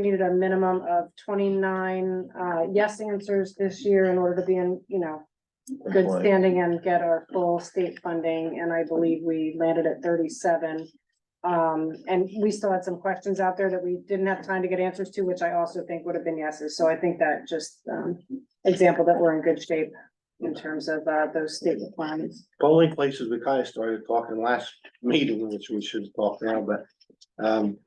needed a minimum of twenty-nine, uh, yes answers this year in order to be in, you know, good Right. standing and get our full state funding, and I believe we landed at thirty-seven. Um, and we still had some questions out there that we didn't have time to get answers to, which I also think would have been yeses, so I think that just, um, example that we're in good shape in terms of, uh, those state requirements. The Only places we kind of started talking last meeting, which we should talk now, but, um.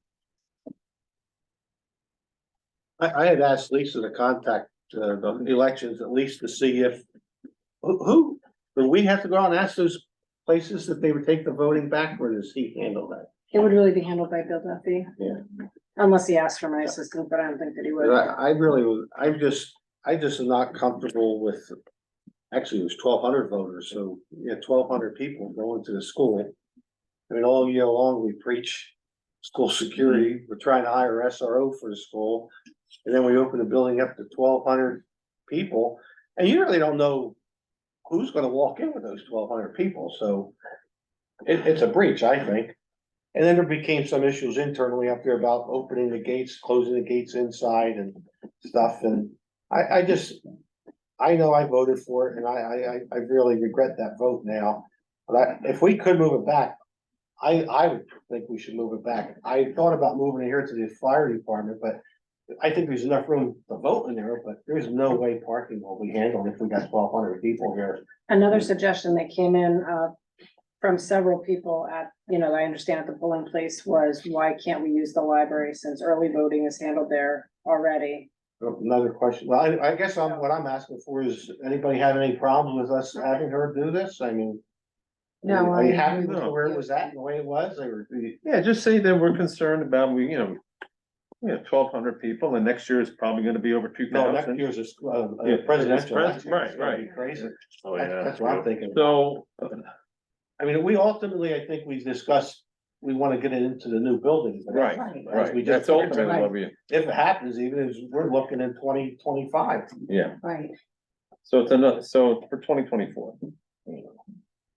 I, I had asked Lisa to contact, uh, the elections at least to see if, who, who, do we have to go out and ask those places if they would take the voting back, or does he handle that? It would really be handled by Bill Duffy. Yeah. Unless he asked for my assistance, but I don't think that he would. But I, I really, was- I'm just, I just am not comfortable with, actually, it was twelve hundred voters, so, yeah, twelve hundred people going to the school. I mean, all year long, we preach school security, we're trying to hire SRO for the school, and then we open the building up to twelve hundred people, and you really don't know who's gonna walk in with those twelve hundred people, so it, it's a breach, I think. And then there became some issues internally up there about opening the gates, closing the gates inside and stuff, and I, I just. I know I voted for it, and I, I, I, I really regret that vote now, but I, if we could move it back. I, I would think we should move it back, I thought about moving it here to the fire department, but. I think there's enough room to vote in there, but there's no way parking will be handled if we got twelve hundred people here. Another Mm. suggestion that came in, uh, from several people at, you know, I understand at the polling place was, why can't we use the library since early voting is handled there already? Another question, well, I, I guess I'm, what I'm asking for is, anybody have any problems with us having her do this, I mean. No, Are you I- happy with No. where it was at and the way it was, or? do you- Yeah, just say that we're concerned about, we, you know, we have twelve hundred people and next year is probably gonna be over two No, next thousand. year's is, uh, Yeah, uh, presidential. pres- election, it's right, gonna be right. Crazy, Oh, That's- yeah. that's what I'm thinking. So, I mean, we ultimately, I think we discussed, we wanna get it into the new building. but right, we right, just that's talked ultimately about. what we, If it happens, even if we're looking in twenty twenty-five, yeah, Right. so it's another, so for twenty twenty-four.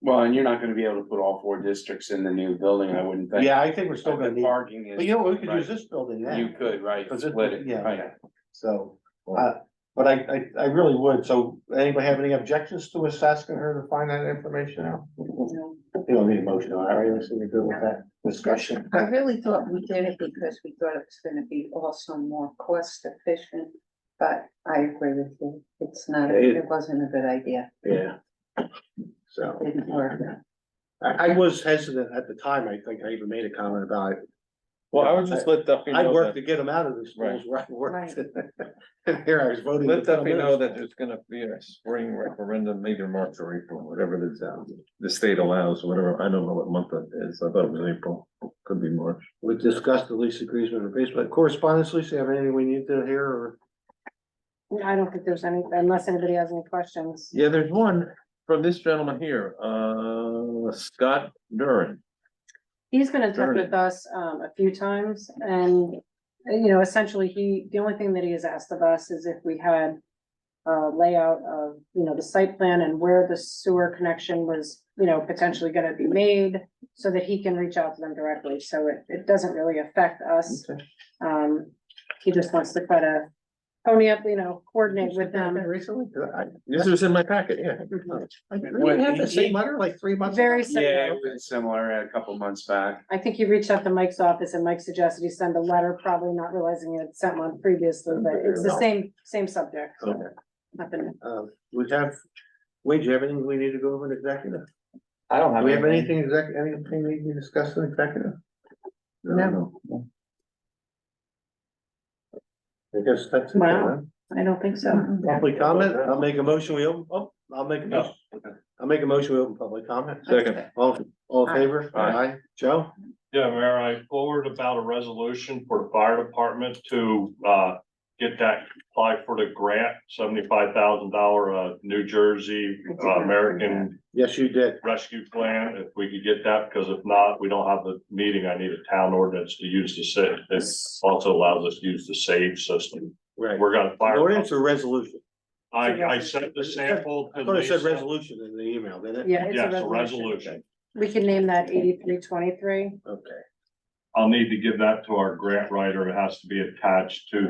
Well, and you're not gonna be able to put all four districts in the new building, I wouldn't think. yeah, I think we're still But gonna the need, parking but is, you know, we could Right. use this building now. you could, right, Cause it, split it, yeah, right, yeah, so, uh, but I, I, I really would, so anybody have any objections to us asking her to find that information out? You don't need a motion, on it, right? Let's see, we're good with that discussion. I really thought we did it because we thought it was gonna be also more cost efficient, but I agree with you. It's not, It- it wasn't a good idea, Yeah. So. didn't work. I, I was hesitant at the time, I think I even made a comment about it. Well, I would just let Duffy I know worked that, to get them out of the schools where I worked. And here I was voting. let to put 'em Duffy in. know that there's gonna be a spring referendum, either March or April, whatever the, um, the state allows, whatever, I don't know what month it is, I thought it was April, could be March. We discussed the lease agreement or basement correspondence, Lisa, have anything we need to hear or? I don't think there's any, unless anybody has any questions. Yeah, there's one from this gentleman here, uh, Scott Durin. He's been in touch Sure. with us, um, a few times and, you know, essentially he, the only thing that he has asked of us is if we had uh, layout of, you know, the site plan and where the sewer connection was, you know, potentially gonna be made so that he can reach out to them directly. So it, it doesn't really affect us. Um, he just wants to try to pony up, you know, coordinate with them. Mm-hmm. Recently? I, This was in my packet, yeah. I didn't have the same letter like three months. ago? Very Yeah, similar. it was similar a couple months back, I think he reached out to Mike's office and Mike suggested he send a letter, probably not realizing he had sent one previously, but it's the same, same subject. Okay. Nothing. Uh, we have, Wade, do you have anything we need to go over in executive? I don't Do have. we have anything exec, anything we need to discuss in executive? No. I guess that's it. Wow. huh? I don't think so. Public comment, I'll make a motion, we open, oh, I'll make a motion. I'll make a motion, we open public comment. Second. All, all in favor? Aye. Joe? Yeah, Mayor, I forward about a resolution for the fire department to, uh, get that, apply for the grant, seventy-five thousand dollar, uh, New Jersey I did uh, not see American Yes, you did. Rescue Plan, if we could get that, because if not, we don't have the meeting, I need a town ordinance to use the sa- this also allows us to use the SAVE system. Right. We're gonna fire. Ordinance or resolution? I, I sent the sample I to thought it said Lisa. resolution in the email, didn't it? Yeah, it's Yes, a a resolution. resolution. We can name that eighty-three twenty-three. Okay. I'll need to give that to our grant writer. It has to be attached to